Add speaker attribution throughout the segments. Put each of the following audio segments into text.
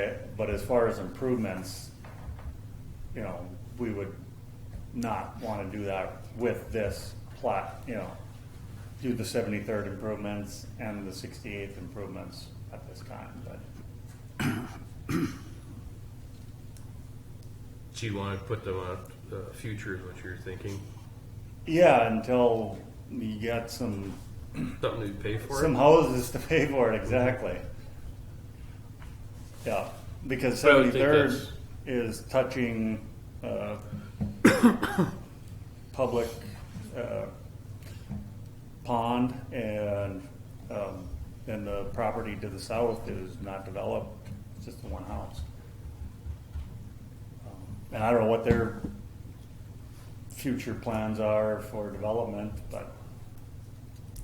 Speaker 1: it, but as far as improvements, you know, we would not want to do that with this plot, you know, do the seventy-third improvements and the sixty-eighth improvements at this time, but
Speaker 2: Do you want to put them on uh, future is what you're thinking?
Speaker 1: yeah, until you get some,
Speaker 2: Something to pay for
Speaker 1: some
Speaker 2: it?
Speaker 1: houses to pay for it, exactly. Yeah, because
Speaker 2: But I would think
Speaker 1: seventy-third
Speaker 2: that's-
Speaker 1: is touching, uh, public, uh, pond and, um, and the property to the south is not developed, it's just the one house. And I don't know what their future plans are for development, but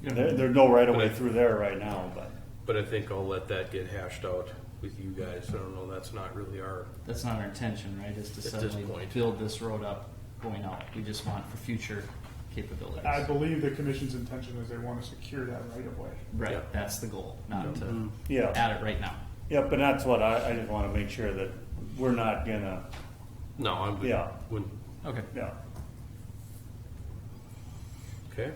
Speaker 1: there, there's no right of way
Speaker 2: But I-
Speaker 1: through there right now, but.
Speaker 2: But I think I'll let that get hashed out with you guys. I don't know, that's not really our,
Speaker 3: That's not our intention, right, is to
Speaker 2: this
Speaker 3: suddenly
Speaker 2: point.
Speaker 3: build this road up going out. We just want for future capabilities.
Speaker 4: I believe the commission's intention is they want to secure that right of way.
Speaker 3: Right,
Speaker 2: Yeah.
Speaker 3: that's the goal, not to
Speaker 1: Yeah.
Speaker 3: add it right now.
Speaker 1: Yep, and that's what I, I just wanna make sure that we're not gonna,
Speaker 2: no, I'm,
Speaker 1: Yeah.
Speaker 2: wouldn't,
Speaker 3: Okay.
Speaker 1: yeah.
Speaker 2: okay?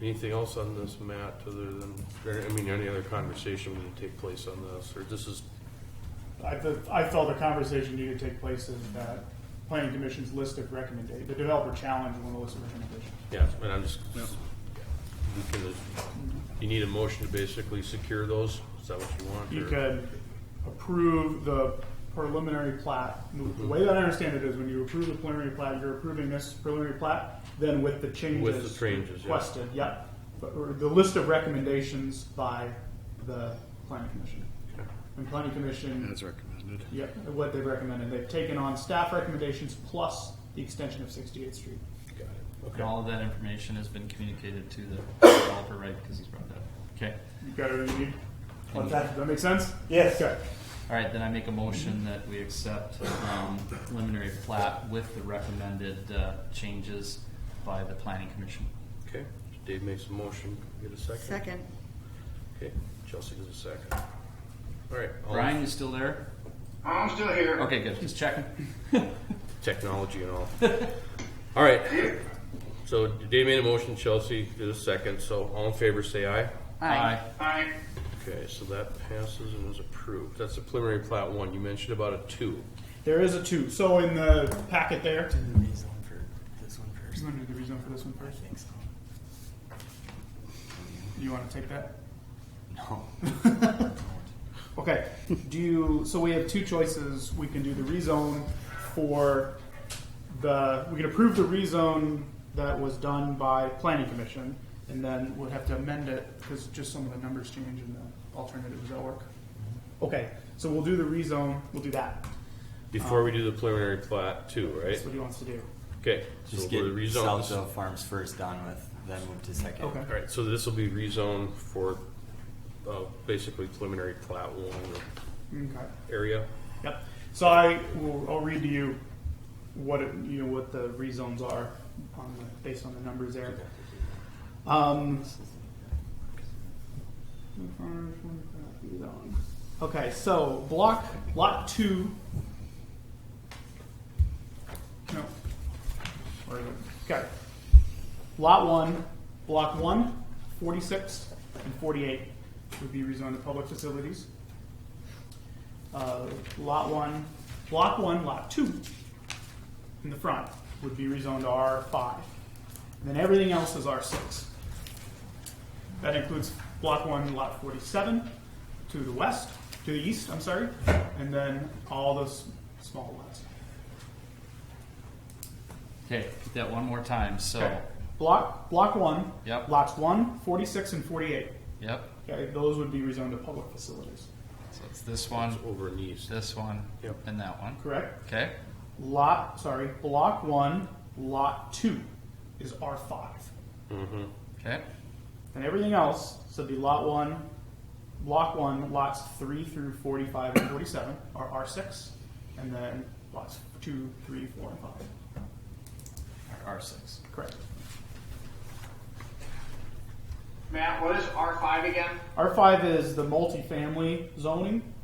Speaker 2: Anything else on this, Matt, other than, or, I mean, any other conversation we need to take place on this, or this is,
Speaker 4: I, th- I felt the conversation needed to take place in that planning commission's list of recommendation, the developer challenge one of the list of recommendations.
Speaker 2: yeah, and I'm just, you can, you need a motion to basically secure those? Is that what you want?
Speaker 4: You
Speaker 2: or-
Speaker 4: could approve the preliminary plat. The way that I understand it is when you approve the preliminary plat, you're approving this preliminary plat, then with the changes.
Speaker 2: With the changes, yeah.
Speaker 4: Requested, yep. But- or The list of recommendations by the planning commission. And planning commission. As recommended. Yep, what they've recommended. They've taken on staff recommendations plus the extension of 68th Street.
Speaker 2: Got it.
Speaker 3: And
Speaker 2: Okay.
Speaker 3: all of that information has been communicated to the developer, right, because he's brought that up. Okay,
Speaker 4: You got everything you need? Does that make sense?
Speaker 1: Yes.
Speaker 4: Okay.
Speaker 3: all right, then I make a motion that we accept um, preliminary plat with the recommended uh, changes by the planning commission.
Speaker 2: Okay, Dave makes a motion, get a second?
Speaker 5: Second.
Speaker 2: Okay, Chelsea does a second. All right. all
Speaker 3: Brian, you still there?
Speaker 6: I'm still here.
Speaker 3: Okay, good, just checking.
Speaker 2: Technology and all. All right, so Dave made a motion, Chelsea did a second, so all in favor, say aye.
Speaker 3: Aye.
Speaker 6: Aye.
Speaker 2: Okay, so that passes and is approved. That's the preliminary plat one. You mentioned about a two.
Speaker 4: There is a two. So in the packet there,
Speaker 7: the reason for this one first.
Speaker 4: you want to do the reason for this one first?
Speaker 7: Thanks.
Speaker 4: You want to take that?
Speaker 7: No.
Speaker 4: Okay. Do you, so we have two choices. We can do the rezone for the, we can approve the rezone that was done by planning commission, and then we'd have to amend it because just some of the numbers change in the alternative. Does that work?
Speaker 7: Mm-hmm.
Speaker 4: Okay, so we'll do the rezone, we'll do that.
Speaker 2: Before we do the preliminary plat two, right?
Speaker 4: That's what he wants to do.
Speaker 2: Okay. so
Speaker 7: Just
Speaker 2: we'll
Speaker 7: get
Speaker 2: rezone
Speaker 7: South
Speaker 2: this-
Speaker 7: Dove Farms first done with, then move to second.
Speaker 4: Okay.
Speaker 2: All right, so this will be rezoned for, uh, basically preliminary plat one
Speaker 4: Okay.
Speaker 2: area.
Speaker 4: Yep. So I will, I'll read to you what it, you know what the rezones are on the, based on the numbers there. Um, okay, so block lot two. No. Where is it? Okay. Lot one, block one, 46, and 48 would be rezoned to public facilities uh, lot one, block one, lot two in the front would be rezoned to R5. And then everything else is R6. That includes block one, lot 47 to the west, to the east, I'm sorry, and then all those small lots.
Speaker 3: Okay, that one more time, so,
Speaker 4: Block, block one,
Speaker 3: Yep.
Speaker 4: lots 1, 46, and 48.
Speaker 3: yep,
Speaker 4: Okay, those would be rezoned to public facilities,
Speaker 3: so it's this one,
Speaker 2: It's over in the east.
Speaker 3: this one,
Speaker 2: Yep.
Speaker 3: and that one.
Speaker 4: correct?
Speaker 3: Okay,
Speaker 4: lot, sorry, block one, lot two is R5.
Speaker 3: okay,
Speaker 4: And everything else, so the lot one, block one, lots three through 45 and 47 are R6, and then lots two, three, four, and five.
Speaker 3: R six.
Speaker 4: Correct.
Speaker 6: Matt, what is R5 again?
Speaker 4: R5 is the multifamily zoning,